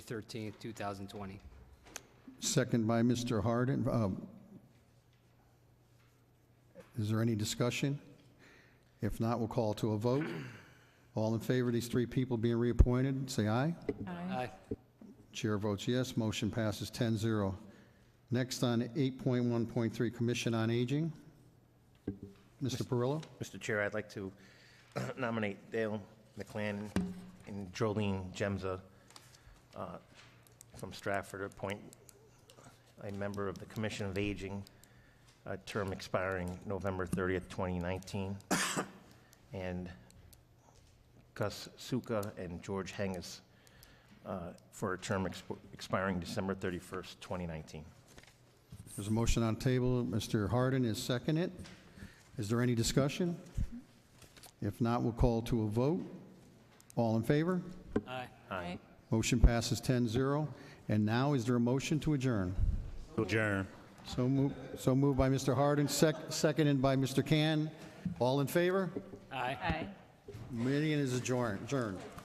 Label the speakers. Speaker 1: 13th, 2020.
Speaker 2: Second by Mr. Harden. Um, Is there any discussion? If not, we'll call to a vote. All in favor of these three people being reappointed, say aye.
Speaker 1: Aye.
Speaker 2: Chair votes yes, motion passes 10-0. Next on 8.1.3, Commission on Aging. Mr. Perillo?
Speaker 3: Mr. Chair, I'd like to nominate Dale McLan and Jolene Gemza uh, from Stratford, appoint a member of the Commission of Aging, a term expiring November 30th, 2019, and Gus Suka and George Hengis uh, for a term exp- expiring December 31st, 2019.
Speaker 2: There's a motion on the table. Mr. Harden is second it. Is there any discussion? If not, we'll call to a vote. All in favor?
Speaker 1: Aye.
Speaker 3: Aye.
Speaker 2: Motion passes 10-0. And now, is there a motion to adjourn?
Speaker 4: Adjourn.
Speaker 2: So moved, so moved by Mr. Harden, sec- seconded by Mr. Can. All in favor?
Speaker 1: Aye.
Speaker 5: Aye.
Speaker 2: Meeting is adjourn- adjourned.